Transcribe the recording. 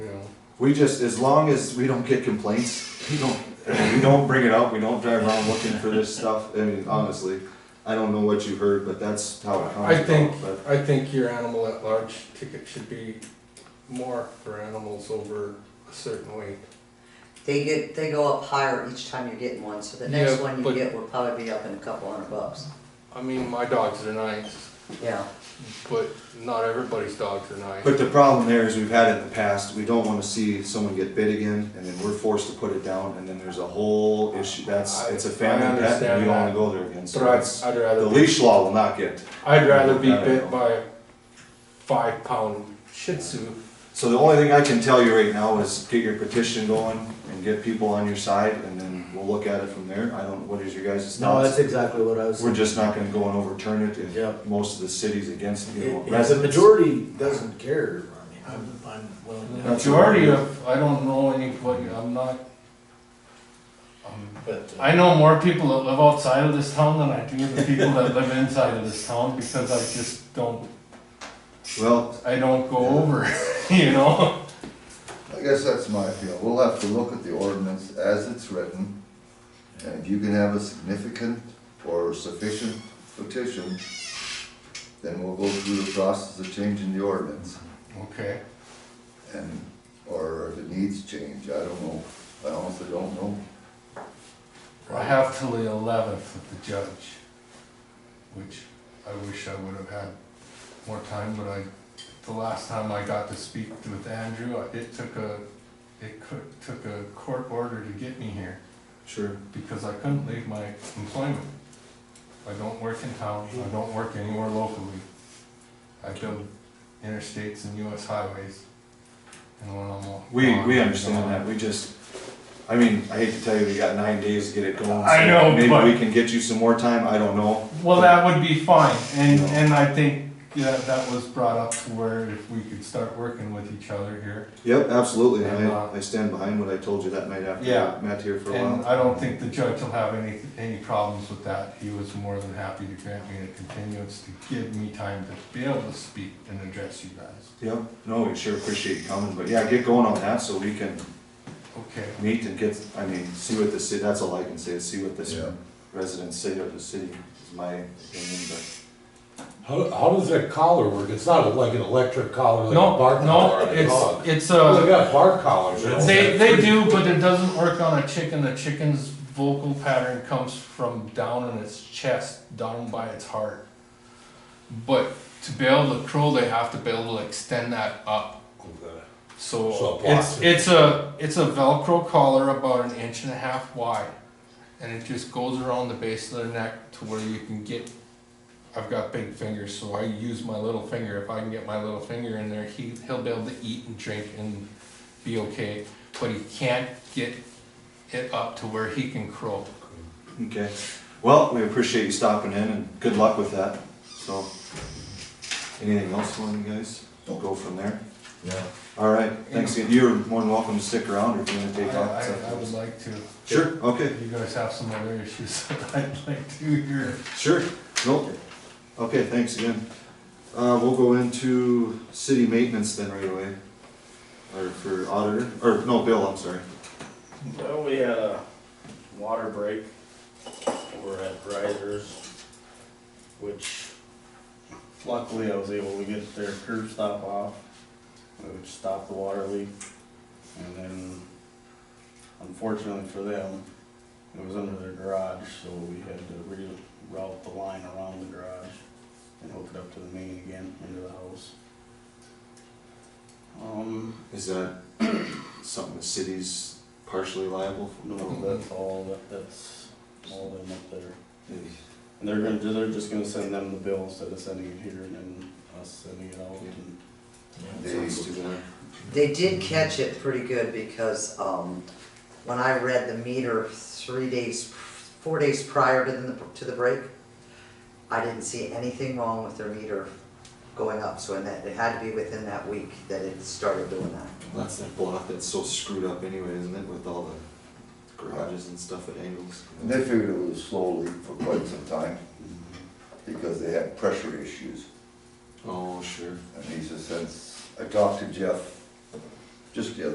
we just as long as we don't get complaints, we don't we don't bring it up. We don't drive around looking for this stuff. I mean, honestly, I don't know what you heard, but that's how it comes. I think, about, I think your animal at large ticket should be more for animals over a certain weight. They get, they go up higher each time you're getting one, so the next Yeah, one but- you get will probably be up in a couple hundred bucks. I mean, my dogs are nice, Yeah, but not everybody's dogs are nice. But the problem there is we've had it in the past, we don't wanna see someone get bit again, and then we're forced to put it down, and then there's a whole issue, that's, it's a I- I family pet, and we understand don't wanna that. go there again, so But I'd, that's, I'd the rather, be- leash law will not get. I'd rather be I don't know. bit by a five pound Shih Tzu. So the only thing I can tell you right now is get your petition going, and get people on your side, and then we'll look at it from there, I don't, what is your guys' No, thoughts? that's exactly what I was. We're just not gonna go and overturn it, Yeah. if most of the cities against, you know, If- If the residents. majority doesn't care, I mean, I'm, I'm willing to. That's Majority right. of, I don't know anybody, I'm not. um, But, uh, I know more people that live outside of this town than I do the people that live inside of this town, because I just don't, Well, I don't go over, you know? I guess that's my feel. We'll have to look at the ordinance as it's written. And if you can have a significant or sufficient petition, then we'll go through the process of changing the ordinance. Okay. And, or if it needs change, I don't know. I honestly don't know. I have till the eleventh with the judge, which I wish I would have had more time, but I, the last time I got to speak with Andrew, I- it took a, it cou- took a court order to get me here, sure, because I couldn't leave my employment. I don't work in town, I don't work anywhere locally. I build interstates and US highways, and when I'm. all- we, we understand that, we just, I mean, I hate to tell you, we got nine days to get it going. I so know, but- Maybe we can get you some more time, I don't know, Well, that would be fine, and, and I think, yeah, that was brought up to where if we could start working with each other here. Yep, absolutely. And And, uh, I, I stand behind what I told you that night after Yeah. Matt here for a And while. I don't think the judge will have any, any problems with that, he was more than happy to grant me a continuance to give me time to be able to speak and address you guys. Yep, no, we sure appreciate you coming, but yeah, get going on that so we can Okay, meet and get, I mean, see what the city, that's all I can say, is see what Yeah. the residents say of the city, is my opinion, but. How, how does that collar work? It's not like an electric collar like a no, bark collar. no, on a it's, dog. it's Well, they a, got bark collars. you know. they, they do, but it doesn't work on a chicken, the chicken's vocal pattern comes from down in its chest, down by its heart. But to be able to crow, they have to be able to extend that up. So So it blocks it's, it. it's a, it's a Velcro collar about an inch and a half wide. And it just goes around the base of their neck to where you can get, I've got big fingers, so I use my little finger. If I can get my little finger in there, he, he'll be able to eat and drink and be okay. But he can't get it up to where he can crow. Okay, well, we appreciate you stopping in and good luck with that, so. Anything else for you guys? We'll go from there. Yeah. All right, thanks again. You're more than welcome to stick around if you wanna I, take off. I, I would like to, Sure, okay. you guys have some other issues that I'd like to hear. Sure, no, okay, thanks again. Uh, we'll go into city maintenance then right away. Or for auditor, or no, Bill, I'm sorry. Well, we had a water break over at Risers, which luckily I was able to get their curb stop off, which stopped the water leak. And then unfortunately for them, it was under their garage, so we had to reroute the line around the garage and hook it up to the main again into the house. Um, Is that something the city's partially liable for? no, that's all, that- that's all them up there. Maybe. And they're gonna, they're just gonna send them the bill instead of sending it here and then us sending it out and. Sounds too bad. they did catch it pretty good because, um, when I read the meter three days, four days prior to the, to the break, I didn't see anything wrong with their meter going up, so in that, it had to be within that week that it started doing that. That's that block that's so screwed up anyway, isn't it, with all the garages and stuff at angles? And they figured it was slowly for quite some time because they had pressure issues. Oh, sure. And he says, since I talked to Jeff just the other